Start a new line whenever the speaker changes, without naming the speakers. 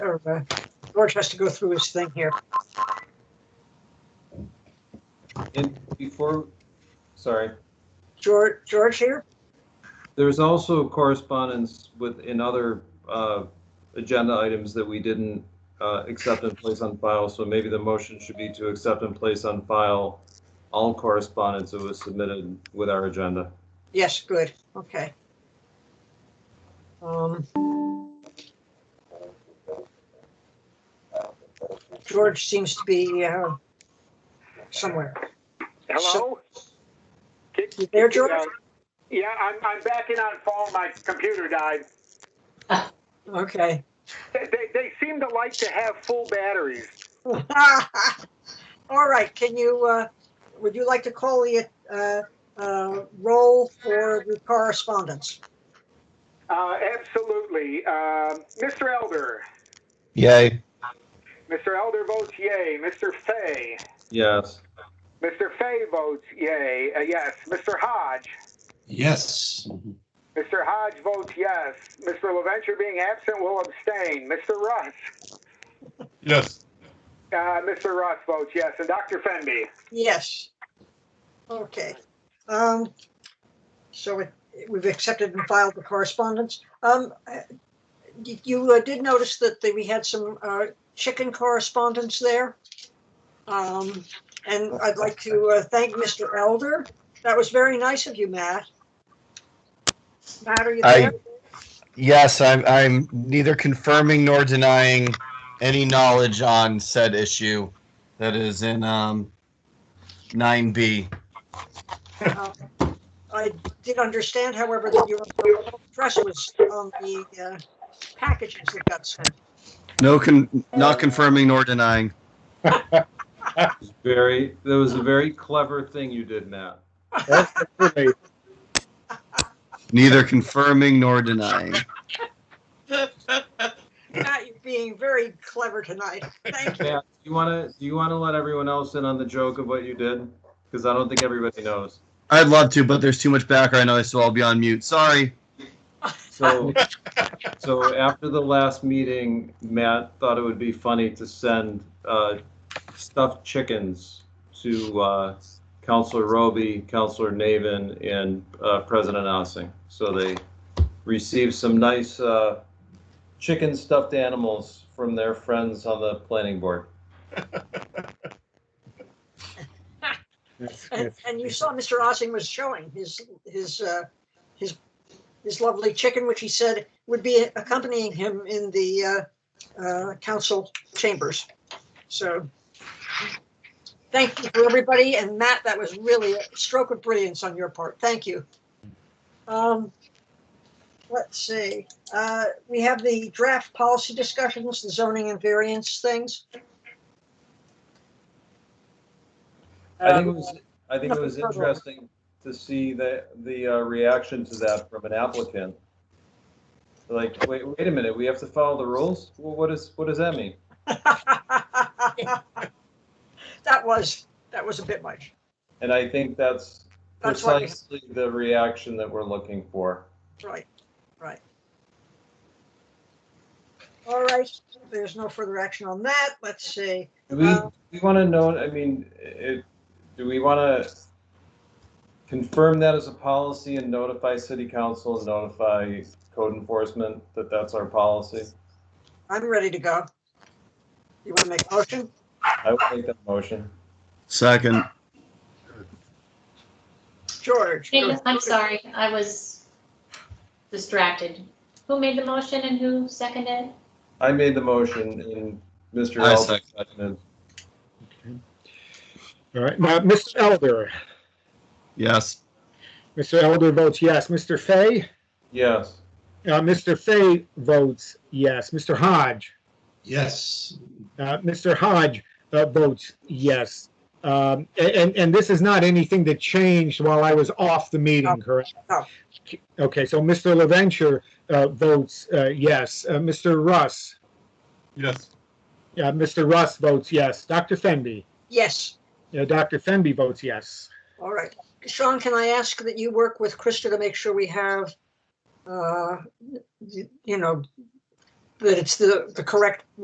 or uh, George has to go through his thing here.
And before, sorry,
George, George here?
there's also correspondence with, in other uh, agenda items that we didn't uh, accept and place on file, so maybe the motion should be to accept and place on file all correspondence that was submitted with our agenda.
Yes, good, okay. Um, George seems to be uh, somewhere.
Hello? Get-
You there,
get
George?
down. Yeah, I'm, I'm backing on phone. My computer died.
Okay.
They, they, they seem to like to have full batteries.
All right, can you, uh, would you like to call the uh, uh, roll for the correspondence?
Uh, absolutely. Um Mr. Elder.
Yay.
Mr. Elder votes yay. Mr. Fay.
Yes.
Mr. Fay votes yay. Uh, yes. Mr. Hodge.
Yes.
Mr. Hodge votes yes. Mr. LaVenture being absent will abstain. Mr. Russ.
Yes.
Uh, Mr. Russ votes yes. And Dr. Fenby.
Yes. Okay. Um, so it- we've accepted and filed the correspondence. Um, uh, you- you uh, did notice that the- we had some, uh, chicken correspondence there. Um, and I'd like to, uh, thank Mr. Elder. That was very nice of you, Matt. Matt, are you
I-
there?
Yes, I'm, I'm neither confirming nor denying any knowledge on said issue that is in um, 9B.
I did understand, however, that your address was on the, uh, packages that got sent.
No, con- not confirming nor denying.
Very, that was a very clever thing you did, Matt.
Neither confirming nor denying.
Matt, you're being very clever tonight. Thank you.
Matt, do you want to, do you want to let everyone else in on the joke of what you did? Because I don't think everybody knows.
I'd love to, but there's too much background noise, so I'll be on mute. Sorry.
So, so after the last meeting, Matt thought it would be funny to send uh, stuffed chickens to uh, Counselor Roby, Counselor Navin, and uh, President Ossing. So they received some nice uh, chicken stuffed animals from their friends on the planning board.
And, and you saw Mr. Ossing was showing his, his, uh, his, his lovely chicken, which he said would be accompanying him in the, uh, uh, council chambers. So thank you for everybody. And Matt, that was really a stroke of brilliance on your part. Thank you. Um, let's see. Uh, we have the draft policy discussions, the zoning and variance things.
I think it
Um,
was, I think it was interesting to see the, the uh, reaction to that from an applicant. Like, wait, wait a minute, we have to follow the rules? Well, what is, what does that mean?
that was that was a bit much.
And I think that's
That's what we-
precisely the reaction that we're looking for.
Right, right. All right, there's no further action on that. Let's see.
Do we,
Uh,
we want to know, I mean, it, do we want to confirm that as a policy and notify city council and notify code enforcement that that's our policy?
I'm ready to go. You want to make a motion?
I would make that motion.
Second.
George?
Hey,
go-
I'm sorry, I was distracted. Who made the motion and who seconded?
I made the motion and Mr.
I
Elder
second.
seconded.
All right, now, Mr. Elder.
Yes.
Mr. Elder votes yes. Mr. Fay?
Yes.
Uh, Mr. Fay votes yes. Mr. Hodge?
Yes.
Uh, Mr. Hodge uh, votes yes. Um, a- and, and this is not anything that changed while I was off the
No.
meeting, correct?
No.
Okay, so Mr. LaVenture uh, votes uh, yes. Uh, Mr. Russ?
Yes.
Uh, Mr. Russ votes yes. Dr. Fenby?
Yes,
Uh, Dr. Fenby votes yes.
all right. Sean, can I ask that you work with Krista to make sure we have, uh, you know, that it's the, the correct